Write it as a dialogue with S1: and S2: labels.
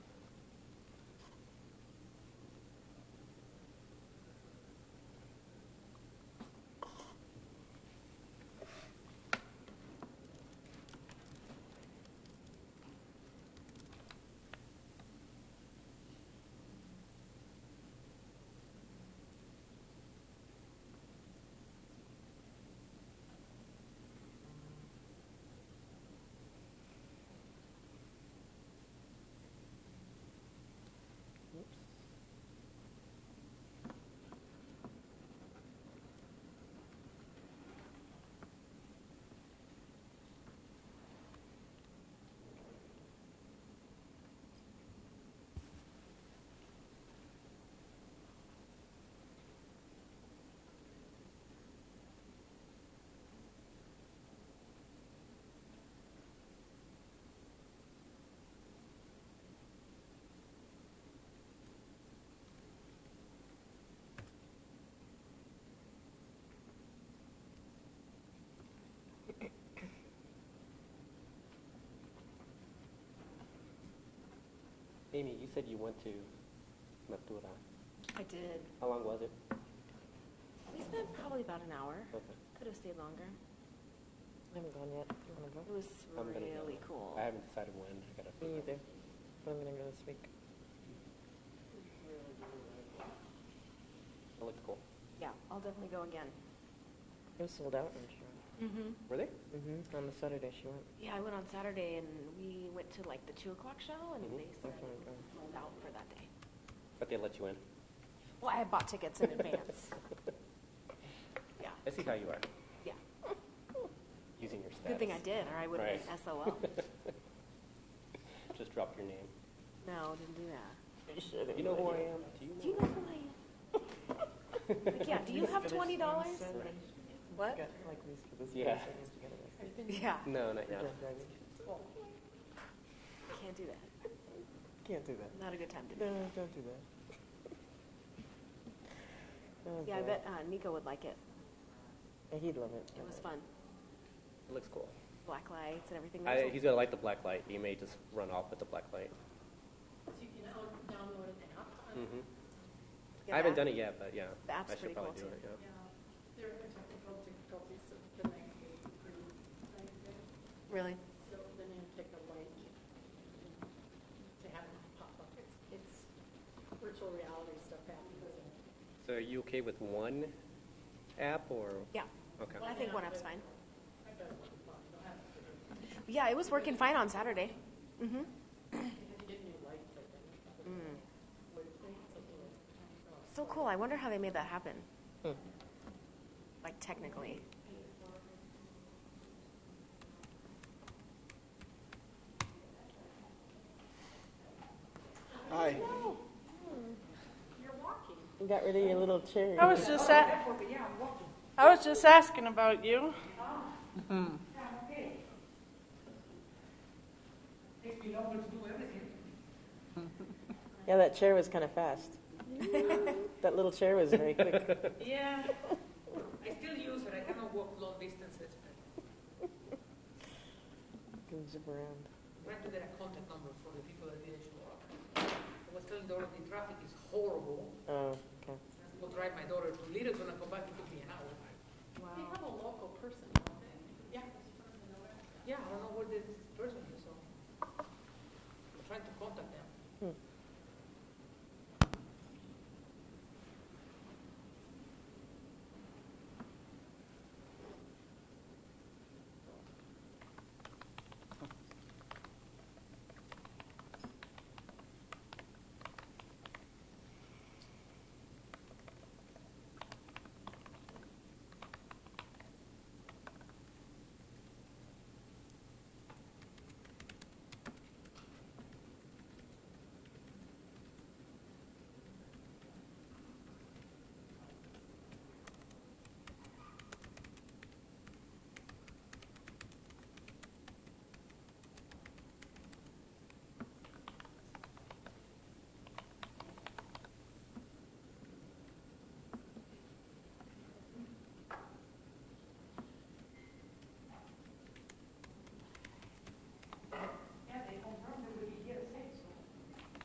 S1: Amy, you said you went to Maptura.
S2: I did.
S1: How long was it?
S2: We spent probably about an hour.
S1: Okay.
S2: Could have stayed longer.
S3: I haven't gone yet. You wanna
S2: It
S3: go?
S2: was
S1: I'm gonna go.
S2: really cool.
S1: I haven't decided when. I gotta.
S3: Me either, but I'm gonna go this week.
S1: It looked cool.
S2: Yeah, I'll definitely go again.
S3: It was sold out, I'm sure.
S2: Mm-hmm.
S1: Were they?
S3: Mm-hmm, on the Saturday she went.
S2: Yeah, I went on Saturday and we went to like the two o'clock show and
S1: Mhm.
S2: they said
S3: Okay,
S2: it was
S3: okay.
S2: sold out for that day.
S1: But they let you in.
S2: Well, I had bought tickets in advance. Yeah,
S1: I see how you are
S2: yeah.
S1: using your status.
S2: Good thing I did, or I would have been
S1: Right.
S2: SOL.
S1: Just drop your name.
S2: No, didn't do that.
S1: You know who I am? Do you know?
S2: Do you know who I am? Like, yeah, do you have twenty dollars?
S1: Right.
S2: What?
S3: Got like these for this.
S1: Yeah.
S3: person, these together.
S2: Yeah,
S1: No, not yet.
S3: Yeah, driving.
S2: can't do that.
S3: Can't do that.
S2: Not a good time to do
S3: No,
S2: it.
S3: don't do that. Oh,
S2: Yeah, I
S3: boy.
S2: bet uh, Nico would like it.
S3: Yeah, He'd love it.
S2: It was fun.
S1: It looks cool.
S2: Black lights and everything.
S1: I,
S2: There's a-
S1: he's gonna like the black light. He may just run off with the black light.
S4: So you can down- download an app
S2: Mm-hmm.
S4: on,
S1: hmm
S2: yeah,
S1: I haven't
S2: the
S1: done
S2: app-
S1: it yet, but yeah,
S2: the
S1: I
S2: app's
S1: should
S2: pretty
S1: probably
S2: cool,
S1: do it.
S2: too.
S1: Yeah.
S4: yeah, there are technical difficulties of the language group, like, that.
S2: Really?
S4: so then you take a link to have it pop up. It's- It's virtual reality stuff happening.
S1: So are you okay with one app or?
S2: Yeah.
S1: Okay.
S2: I think one up's fine. Yeah, it was working fine on Saturday. Mm-hmm. Mm. So cool. I wonder how they made that happen.
S3: Hmm.
S2: Like technically.
S5: Hi.
S3: You got rid of your little cherry.
S6: I was just a- I was just asking about you.
S3: Yeah, that chair was kind of fast. That little chair was very quick.
S7: Yeah, I still use her. I haven't walked long distances, but
S3: Can zip around.
S7: I have to get a contact number for the people that didn't show up. I was telling Dora the traffic is horrible.
S3: Oh, okay.
S7: I will drive my daughter to Littleton and come back it took me an hour.
S4: They have a local person, don't they?
S7: Yeah, yeah, I don't know where this